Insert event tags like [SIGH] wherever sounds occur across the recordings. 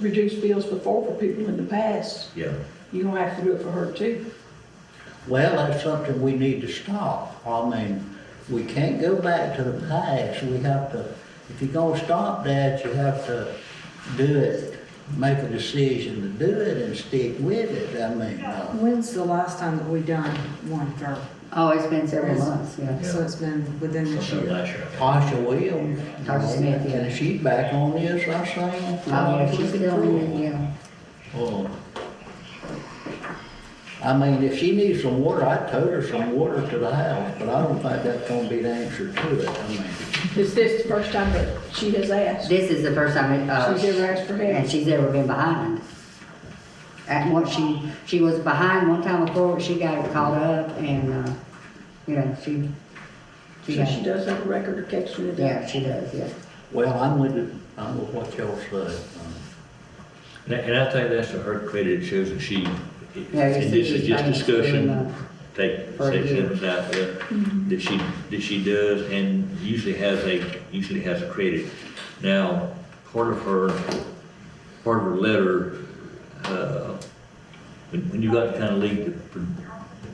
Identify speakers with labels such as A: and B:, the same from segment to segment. A: reduced bills before for people in the past.
B: Yeah.
A: You're gonna have to do it for her too.
C: Well, that's something we need to stop. I mean, we can't go back to the past. We have to, if you're gonna stop that, you have to do it, make a decision to do it and stick with it. I mean, uh,
D: When's the last time that we done one for,
E: Oh, it's been several months, yeah.
D: so it's been within this
B: Sometime
D: year?
B: last year, I think.
C: Tasha Williams, you
E: Tasha
C: know,
E: Smith, yeah.
C: and she's back on this, I think.
E: Oh, yeah, she's still in it, yeah.
C: Oh. I mean, if she needs some water, I'd tote her some water to the house, but I don't think that's gonna be the answer to it. I mean,
A: Is this the first time that she has asked?
E: This is the first time it, uh.
A: She's ever asked for help?
E: And she's ever been behind. At once she, she was behind one time before, she got it caught up and, uh, you know, she.
A: So
E: got-
A: she does have a record of catching it up.
E: Yeah, she does, yeah.
C: Well, I'm with it, I'm with what y'all say. Um,
B: And I- and I think that's to her credit, it shows that she, and
E: Yeah, it's-
B: this is
E: it's
B: just
E: been
B: discussion,
E: doing
B: take
E: for
B: sections
E: years.
B: out there, that she, that she does and usually has a, usually has a credit. Now, part of her, part of her letter, uh, when, when you got the kind of league that, pr-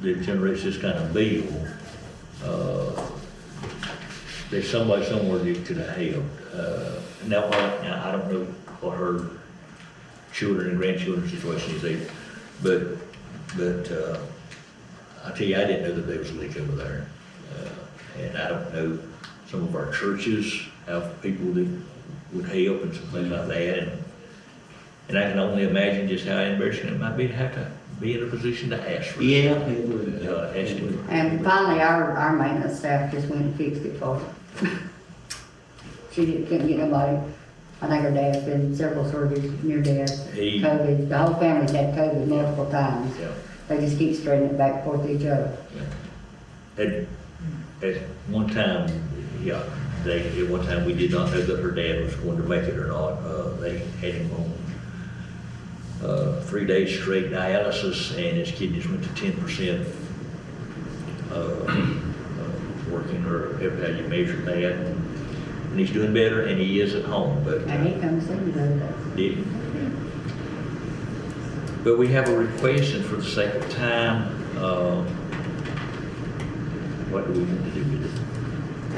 B: that generates this kind of bill, uh, there's somebody somewhere that could have helped. Uh, now, I, now, I don't know what her children and grandchildren's situation is either, but, but, uh, I tell you, I didn't know that there was a leak over there. Uh, And I don't know, some of our churches have people that would help and some things like that. And and I can only imagine just how embarrassing it might be to have to be in a position to ask for it.
C: Yeah, it would.
B: Uh, ask it.
E: And finally, our, our maintenance staff just went and fixed it for her. [LAUGHS] She didn't, couldn't get nobody, I think her dad's been several surgeries, near death,
B: He-
E: COVID, the whole family's had COVID multiple times.
B: Yeah.
E: They just keep spreading it back and forth to each other.
B: At, at one time, yeah, they, at one time, we did not know that her dad was going to make it or not. Uh, they had him on, uh, three days straight dialysis and his kidneys went to ten percent. uh, Working or however you measure that. And he's doing better and he is at home, but.
E: And he comes in the other day.
B: Didn't. But we have a request, and for the sake of time, um, what do we want to do with it?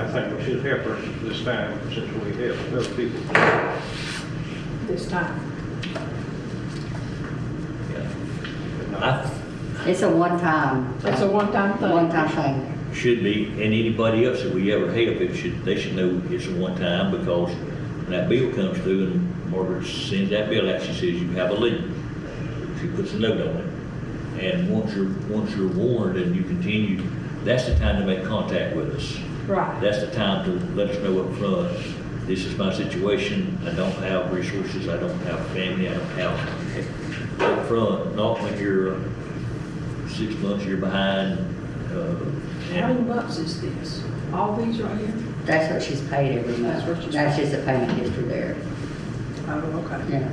F: I think we should help her this time since we helped other people.
A: This time,
B: Yeah.
E: It's a one-time.
A: It's a one-time thing.
E: One-time thing.
B: I should be, and anybody else that we ever help, it should, they should know it's a one-time, because when that bill comes through and Margaret sends that bill out, she says, you have a leak. She puts a note on it. And once you're, once you're warned and you continue, that's the time to make contact with us.
A: right.
B: That's the time to let us know up front. this is my situation, I don't have resources, I don't have family, I don't have, up front. not when you're uh, six months, you're behind, uh,
A: How many
B: and
A: months is this? All these right here?
E: That's what she's paid every
A: That's what
E: month.
A: she's
E: That's just a payment history there,
A: Oh, okay.
E: yeah.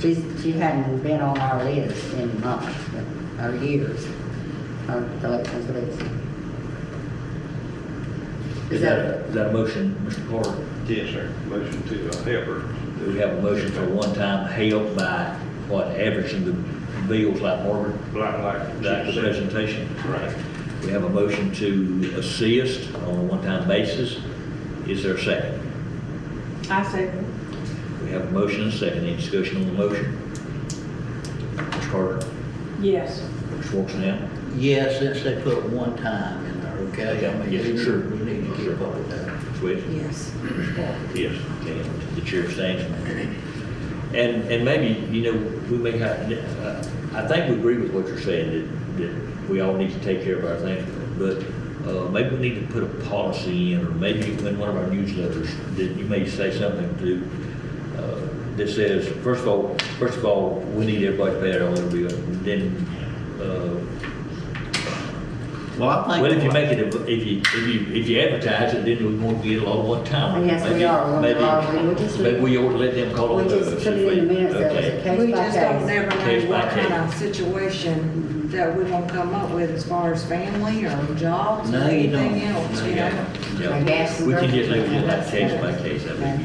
E: She's, she hadn't been on our list in months, but- or years, our collections list.
B: is that, is that a motion, Mr. Carter?
F: Yes, sir. Motion to uh, help her.
B: Do we have a motion for one-time help by, what, averaging the bills like Margaret,
F: Like, like.
B: like the
F: she said.
B: presentation?
F: Right.
B: We have a motion to assist on a one-time basis, is there a second?
A: I said,
B: We have a motion and a second. Any discussion on the motion? Ms. Carter,
A: yes.
B: Ms. Schwartz-Nam?
C: Yeah, since they put one time in there, okay? I mean,
B: Yes,
C: we need-
B: sure.
C: We need to keep up with that.
B: Ms. West?
D: Yes.
B: Ms. Carter? Yes. Okay, the chair stands. And, and maybe, you know, we may have, uh, I think we agree with what you're saying, that, that we all need to take care of our things, but uh, maybe we need to put a policy in, or maybe in one of our newsletters, that you may say something to, uh, that says, first of all, first of all, we need everybody to pay their own bill, then uh,
C: Well, I
B: Well, if you
C: think,
B: make it, a- if you, if you, if you advertise it, then we won't get a lot of one time.
E: Yes, we are. We are. We would just-
B: Maybe we ought to let them call
E: We
B: on us.
E: just put it in the minutes, that was a
B: Okay.
E: case by
D: We just don't
E: case.
D: never
B: Case
D: know
B: by
D: what kind
B: case.
D: of situation that we gonna come up with as far as family or jobs or
C: No, you
D: anything
C: don't.
D: else, you know?
B: Yeah.
E: I guess.
B: We can just leave it like case by case, I think.